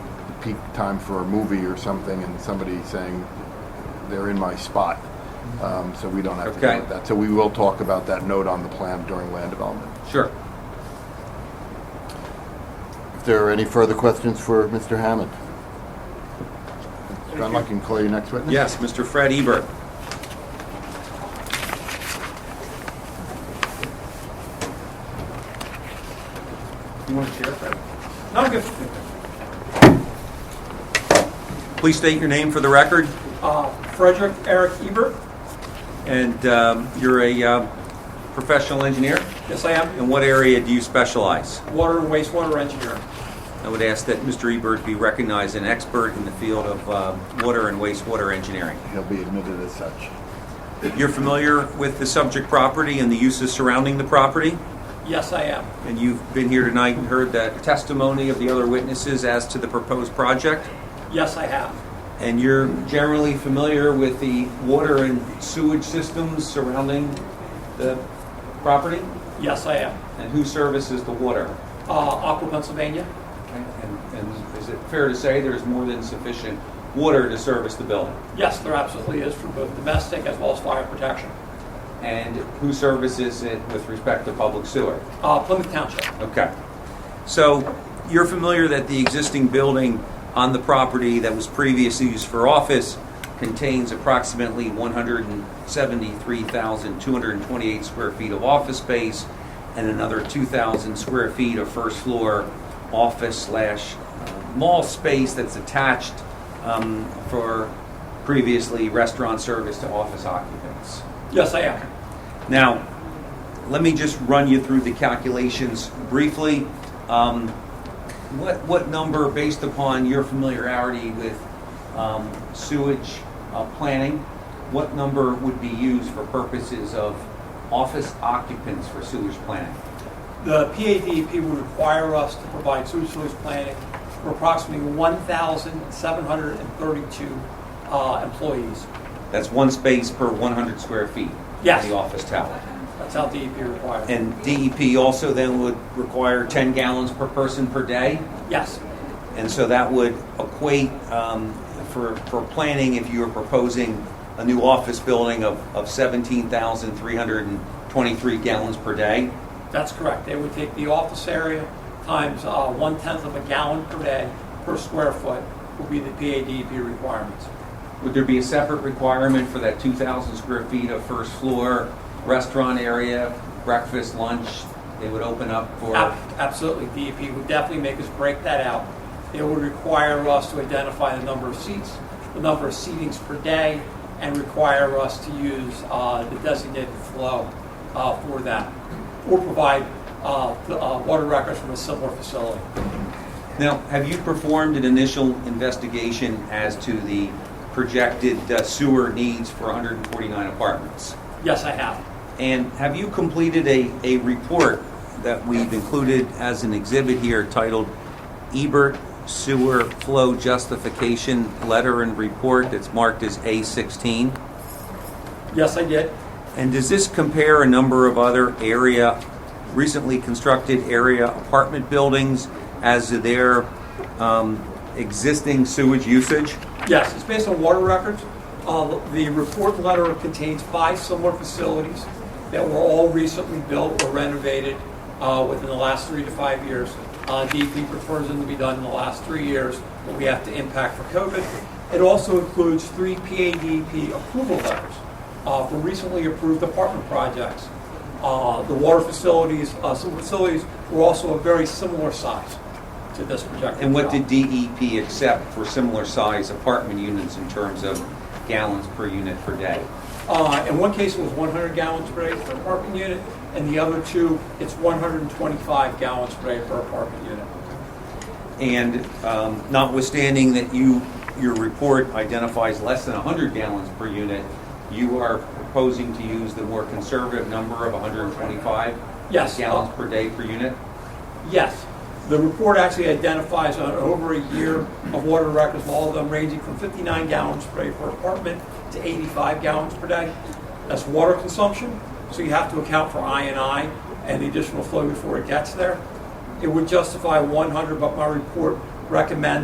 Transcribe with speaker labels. Speaker 1: peak time for a movie or something and somebody saying, they're in my spot. Um, So we don't have to
Speaker 2: Okay.
Speaker 1: deal with that. So we will talk about that note on the plan during land development.
Speaker 2: Sure.
Speaker 1: If there are any further questions for Mr. Hammond? John Luck, can you call your next witness?
Speaker 2: Yes, Mr. Fred Ebert. You want to share, Fred?
Speaker 3: No, I'm good.
Speaker 2: Please state your name for the record,
Speaker 3: Uh, Frederick Eric Ebert.
Speaker 2: and um, you're a uh, professional engineer?
Speaker 3: Yes, I am.
Speaker 2: In what area do you specialize?
Speaker 3: Water and wastewater engineer.
Speaker 2: I would ask that Mr. Ebert be recognized an expert in the field of uh, water and wastewater engineering.
Speaker 1: He'll be admitted as such.
Speaker 2: You're familiar with the subject property and the uses surrounding the property?
Speaker 3: Yes, I am.
Speaker 2: And you've been here tonight and heard the testimony of the other witnesses as to the proposed project?
Speaker 3: Yes, I have.
Speaker 2: And you're generally familiar with the water and sewage systems surrounding the property?
Speaker 3: Yes, I am.
Speaker 2: And who services the water?
Speaker 3: Uh, Aqua, Pennsylvania.
Speaker 2: And and is it fair to say there's more than sufficient water to service the building?
Speaker 3: Yes, there absolutely is for both domestic as well as fire protection.
Speaker 2: And who services it with respect to public sewer?
Speaker 3: Uh, Plymouth Township.
Speaker 2: Okay. So you're familiar that the existing building on the property that was previously used for office contains approximately 173,228 square feet of office space and another 2,000 square feet of first floor office slash uh, mall space that's attached um, for previously restaurant service to office occupants.
Speaker 3: Yes, I am.
Speaker 2: Now, let me just run you through the calculations briefly. Um, What, what number, based upon your familiarity with um, sewage uh, planning, what number would be used for purposes of office occupants for sewage planning?
Speaker 3: The PADP would require us to provide sewage sewage planning for approximately 1,732 uh, employees.
Speaker 2: That's one space per 100 square feet?
Speaker 3: Yes.
Speaker 2: In the office tower.
Speaker 3: That's how DEP requires. it.
Speaker 2: And DEP also then would require 10 gallons per person per day?
Speaker 3: Yes,
Speaker 2: And so that would equate um, for, for planning, if you were proposing a new office building of, of 17,323 gallons per day.
Speaker 3: that's correct. They would take the office area times uh, one-tenth of a gallon per day per square foot would be the PADP requirements.
Speaker 2: Would there be a separate requirement for that 2,000 square feet of first floor restaurant area, breakfast, lunch? They would open up for,
Speaker 3: Ab- Absolutely, DEP would definitely make us break that out. They would require us to identify the number of seats, the number of seatings per day, and require us to use uh, the designated flow uh, for that, or provide uh, the, uh, water records from a similar facility.
Speaker 2: now, have you performed an initial investigation as to the projected uh, sewer needs for 149 apartments?
Speaker 3: Yes, I have.
Speaker 2: And have you completed a, a report that we've included as an exhibit here titled Ebert Sewer Flow Justification Letter and Report that's marked as A16?
Speaker 3: Yes, I did.
Speaker 2: And does this compare a number of other area, recently constructed area apartment buildings as to their um, existing sewage usage?
Speaker 3: Yes, it's based on water records. Uh, The report letter contains five similar facilities that were all recently built or renovated uh, within the last three to five years. Uh, DEP prefers them to be done in the last three years, but we have to impact for COVID. It also includes three PADP E approval letters uh, for recently approved apartment projects. Uh, The water facilities, uh, some facilities were also a very similar size to this projected.
Speaker 2: And what did
Speaker 3: job.
Speaker 2: DEP accept for similar size apartment units in terms of gallons per unit per day?
Speaker 3: Uh, In one case, it was 100 gallons per day per apartment unit, and the other two, it's 125 gallons per day per apartment unit.
Speaker 2: And um, notwithstanding that you, your report identifies less than 100 gallons per unit, you are proposing to use the more conservative number of 125
Speaker 3: Yes.
Speaker 2: gallons per day per unit?
Speaker 3: Yes, the report actually identifies on over a year of water records, all of them ranging from 59 gallons per day per apartment to 85 gallons per day. That's water consumption, so you have to account for INI and the additional flow before it gets there. It would justify 100, but my report recommends